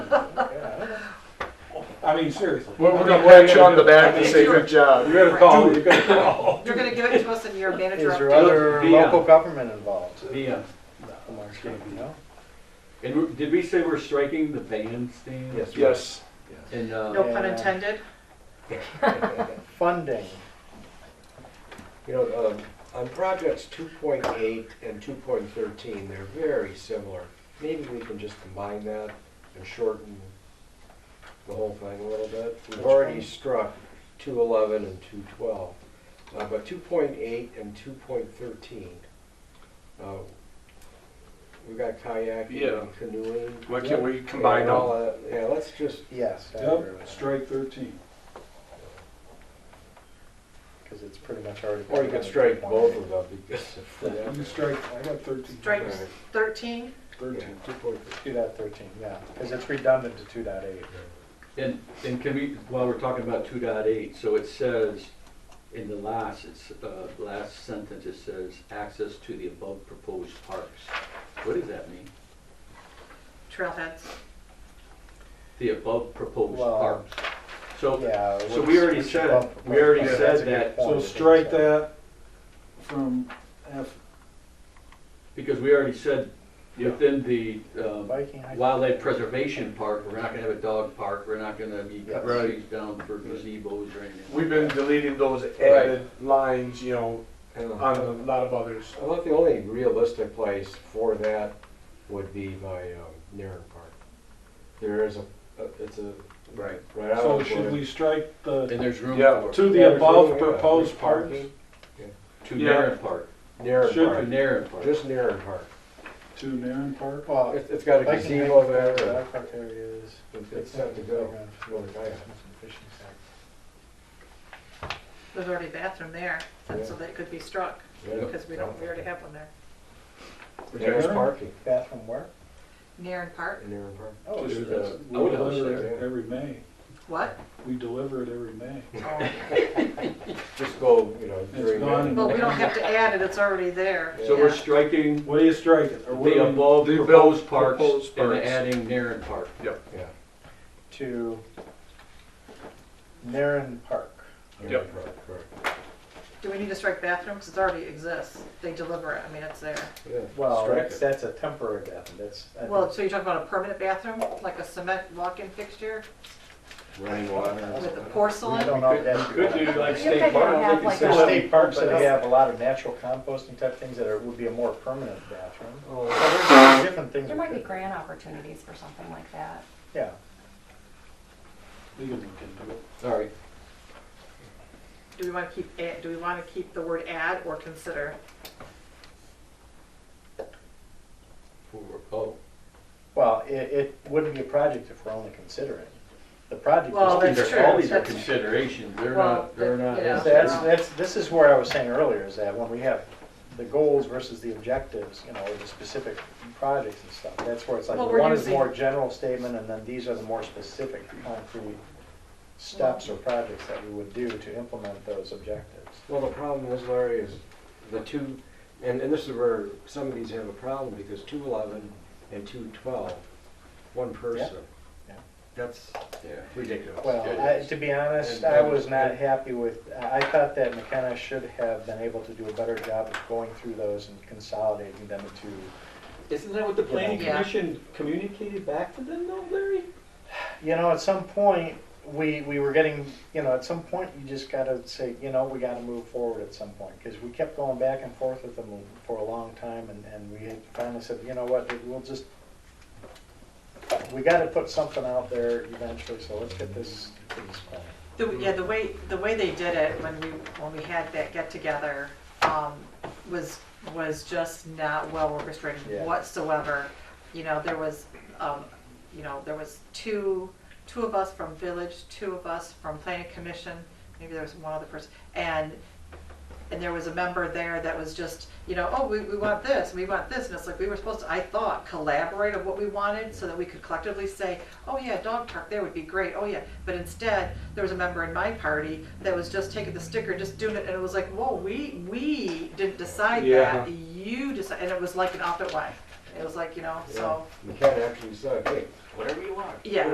I mean, seriously. We're, we're gonna We're pat you on the back I and mean, say, good job. Oh, You're gonna call, you're gonna call. You're gonna give it to us in your manager Is there update. other Yeah. local government involved? The, in our state, no? and we- did we say we're striking the bandstand? Yes. Yes. And, uh, No pun Yeah. intended. Funding, You know, um, on projects two point eight and two point thirteen, they're very similar. Maybe we can just combine that and shorten the whole thing a little bit. We've already struck two eleven and two twelve, uh, but two point eight and two point thirteen. Uh, we've got kayaking Yeah. and canoeing. Why can't we combine and all? that. Yeah, let's just, yes, I agree Yep, with strike thirteen. because it's pretty much already. or you could strike both of them because. You can strike, I got thirteen. Strike thirteen, Thirteen. Two point Two dot thirteen, yeah, because it's redundant to two dot eight. and, and can we, while we're talking about two dot eight, so it says, in the last, it's, uh, last sentence, it says, access to the above proposed parks. What does that mean? trailheads. The above proposed Well, parks. So, Yeah. so which- we already which said- above we already proposed, that's a said good that. point. So strike that from F, because we already said, within the, um, Viking hike- wildlife preservation park, we're not gonna have a dog park, we're not gonna be cutting Right. trees down for gazebo's or anything. We've been deleting those added lines, you know, on a lot of others. um, I thought the only realistic place for that would be by um, Narren Park. There is a, a- it's a, Right. right out so of should we strike the, And there's room Yeah. for, to the above proposed parks? to Yeah. Narren Park, Narren Should to Park, Narren Park. just Narren Park. To Narren Park? Well, It's, it's got a Viking gazebo hike, there, and dog park areas. it's- it's set to go. It's really nice. There's already a bathroom there, and so that could be struck, Yeah. because we don't, we already have one there. There's Narren? parking Bathroom where? Narren Park, in Narren Park. Oh, There's it's- a We outhouse deliver there. it every May. what? We deliver it every May. Just go, you know, during. gone. Well, we don't have to add it, it's already there. So we're Yeah. striking What do you strike it? Or what do the we- above The above proposed parks proposed and parks. adding Narren Park. Yeah. To Narren Park. Narren Yep. Park, correct. Do we need to strike bathroom, because it already exists, they deliver it, I mean, it's there. Yeah. Well, Strike that's, it. that's a temporary bathroom, that's. I think- Well, so you're talking about a permanent bathroom, like a cement walk-in fixture Running water. with a I porcelain? don't know if that's. Could do like You guys state don't park. have like There's a, state parks that have a lot of natural composting type things that are, would be a more permanent bathroom. Oh, There's Different things. there we might be could- grant opportunities for something like that. Yeah, We can look into it. All right, Do we want to keep, add- do we want to keep the word add or consider? For- oh, well, it, it wouldn't be a project if we're only considering. The project Well, is, that's these are, true. all these are That's- considerations, they're Well, not, they're that- not. you know. that's, that's, this is where I was saying earlier, is that when we have the goals versus the objectives, you know, or the specific projects and stuff, that's where it's like, Well, we're one is using- more general statement, and then these are the more specific concrete steps or projects that we would do to implement those objectives. Well, the problem is, Larry, is the two, and, and this is where some of these have a problem, because two eleven and two twelve, one person. Yeah. That's Yeah. ridiculous. Well, I, to be honest, I was not happy with, I I thought that McKenna should have been able to do a better job of going through those and consolidating them to, Isn't that what the planning Yeah. communicated back to them though, Larry? you know, at some point, we, we were getting, you know, at some point, you just gotta say, you know, we gotta move forward at some point, because we kept going back and forth with them for a long time, and, and we had finally said, you know what, we'll just, we gotta put something out there eventually, so let's get this, things going. The, yeah, the way, the way they did it when we, when we had that get-together, um, was, was just not well orchestrated Yeah. whatsoever. You know, there was, um, you know, there was two, two of us from village, two of us from planning commission, maybe there was one other person, and, and there was a member there that was just, you know, oh, we, we want this, we want this, and it's like, we were supposed to, I thought, collaborate of what we wanted, so that we could collectively say, oh yeah, dog park there would be great, oh yeah, but instead, there was a member in my party that was just taking the sticker, just doing it, and it was like, whoa, we, we didn't decide Yeah. that, you decide, and it was like an op-ed way, it was like, you know, so, McKenna actually said, hey, whatever you want. yeah.